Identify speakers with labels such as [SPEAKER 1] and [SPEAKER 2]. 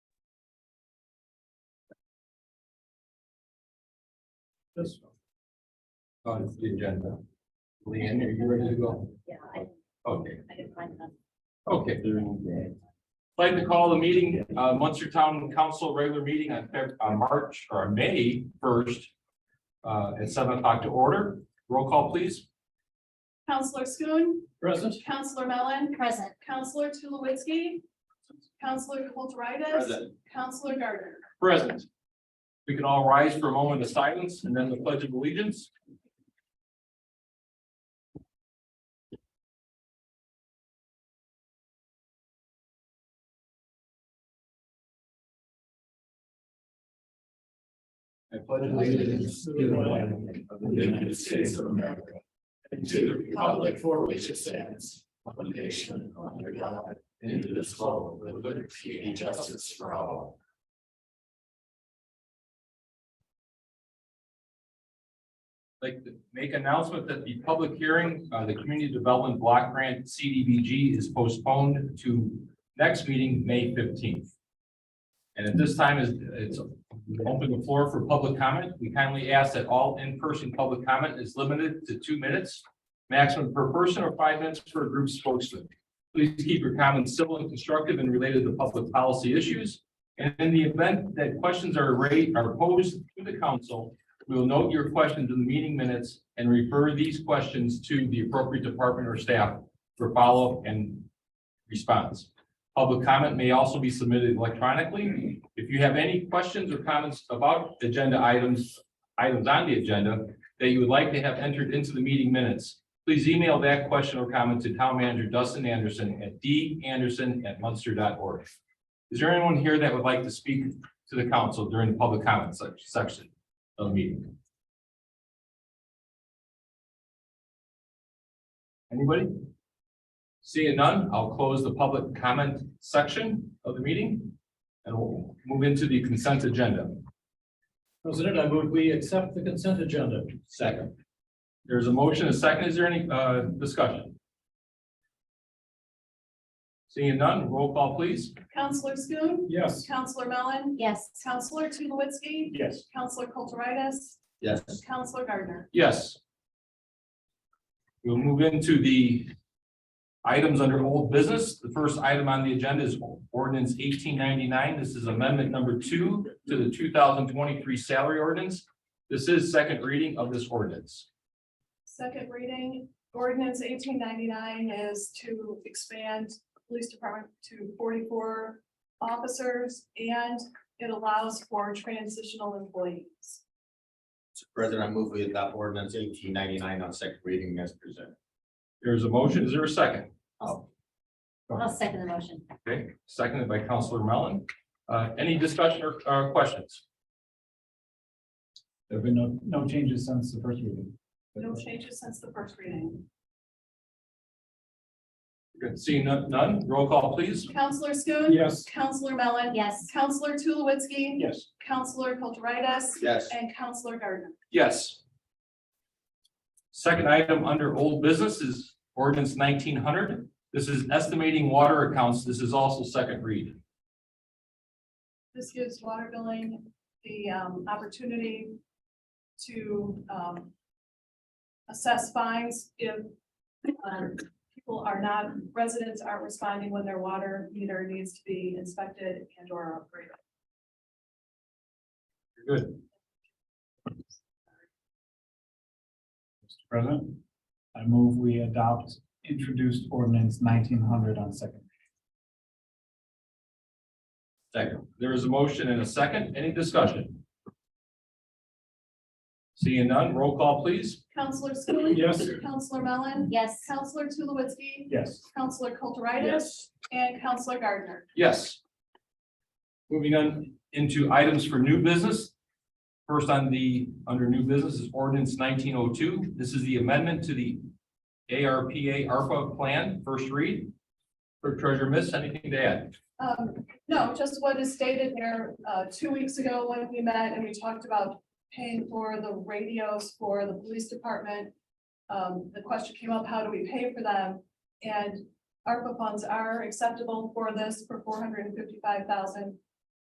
[SPEAKER 1] This one. On the agenda. Leanne, are you ready to go?
[SPEAKER 2] Yeah, I,
[SPEAKER 1] Okay,
[SPEAKER 2] I can find them.
[SPEAKER 1] okay. I'd like to call the meeting, uh, Munster Town Council regular meeting on Feb, on March or May first. Uh, at seven o'clock to order. Roll call, please.
[SPEAKER 3] Counselor Schoen,
[SPEAKER 1] Present.
[SPEAKER 3] Counselor Mellon,
[SPEAKER 2] Present,
[SPEAKER 3] Counselor Tulowitzki, Counselor Kulturitis,
[SPEAKER 1] Present.
[SPEAKER 3] Counselor Gardner.
[SPEAKER 1] Present. We can all rise for a moment of silence and then the pledge of allegiance. I pledge allegiance to the flag of the United States of America and to the republic for which it stands, one nation under God, indivisible, with liberty and justice for all. like to make announcement that the public hearing, uh, the Community Development Block Grant CDBG is postponed to next meeting, May fifteenth. And at this time is, it's open the floor for public comment. We kindly ask that all in-person public comment is limited to two minutes, maximum per person or five minutes per group spokesman. Please keep your comments civil and constructive and related to public policy issues. And in the event that questions are raised, are posed to the council, we will note your questions in the meeting minutes and refer these questions to the appropriate department or staff for follow-up and response. Public comment may also be submitted electronically. If you have any questions or comments about agenda items, items on the agenda that you would like to have entered into the meeting minutes, please email that question or comment to town manager Dustin Anderson at danderson@munster.org. Is there anyone here that would like to speak to the council during the public comment sec- section? of the meeting. Anybody? Seeing none, I'll close the public comment section of the meeting and we'll move into the consent agenda.
[SPEAKER 4] President, I move we accept the consent agenda.
[SPEAKER 1] Second. There's a motion, a second. Is there any uh, discussion? Seeing none, roll call please.
[SPEAKER 3] Counselor Schoen,
[SPEAKER 4] Yes.
[SPEAKER 3] Counselor Mellon,
[SPEAKER 2] yes,
[SPEAKER 3] Counselor Tulowitzki,
[SPEAKER 4] Yes.
[SPEAKER 3] Counselor Kulturitis,
[SPEAKER 1] Yes.
[SPEAKER 3] Counselor Gardner.
[SPEAKER 1] Yes. We'll move into the items under old business. The first item on the agenda is ordinance eighteen ninety-nine. This is amendment number two to the two thousand twenty-three salary ordinance. This is second reading of this ordinance.
[SPEAKER 3] Second reading, ordinance eighteen ninety-nine is to expand police department to forty-four officers, and it allows for transitional employees.
[SPEAKER 5] Mr. President, I move we adopt ordinance eighteen ninety-nine on second reading as presented.
[SPEAKER 1] There's a motion. Is there a second?
[SPEAKER 2] I'll second the motion.
[SPEAKER 1] Okay, seconded by Counselor Mellon. Uh, any discussion or, uh, questions?
[SPEAKER 4] There have been no, no changes since the first reading.
[SPEAKER 3] No changes since the first reading.
[SPEAKER 1] Good. Seeing none- none, roll call please.
[SPEAKER 3] Counselor Schoen.
[SPEAKER 4] Yes.
[SPEAKER 3] Counselor Mellon.
[SPEAKER 2] Yes,
[SPEAKER 3] Counselor Tulowitzki.
[SPEAKER 4] Yes.
[SPEAKER 3] Counselor Kulturitis.
[SPEAKER 5] Yes.
[SPEAKER 3] And Counselor Gardner.
[SPEAKER 1] Yes. Second item under old business is ordinance nineteen hundred. This is estimating water accounts. This is also second read.
[SPEAKER 3] This gives water billing the um, opportunity to um, assess fines if um, people are not, residents aren't responding when their water meter needs to be inspected and or upgraded.
[SPEAKER 1] Good.
[SPEAKER 4] Mr. President, I move we adopt introduced ordinance nineteen hundred on second.
[SPEAKER 1] Second. There is a motion and a second. Any discussion? Seeing none, roll call please.
[SPEAKER 3] Counselor Schoen.
[SPEAKER 4] Yes.
[SPEAKER 3] Counselor Mellon.
[SPEAKER 2] yes,
[SPEAKER 3] Counselor Tulowitzki.
[SPEAKER 4] Yes.
[SPEAKER 3] Counselor Kulturitis. And Counselor Gardner.
[SPEAKER 1] Yes. Moving on into items for new business. First on the, under new business is ordinance nineteen oh two. This is the amendment to the ARPA ARPA plan, first read. Clerk Treasurer Miss, anything to add?
[SPEAKER 3] Um, no, just what is stated there, uh, two weeks ago when we met and we talked about paying for the radios for the police department. Um, the question came up, how do we pay for them? And ARPA funds are acceptable for this for four hundred and fifty-five thousand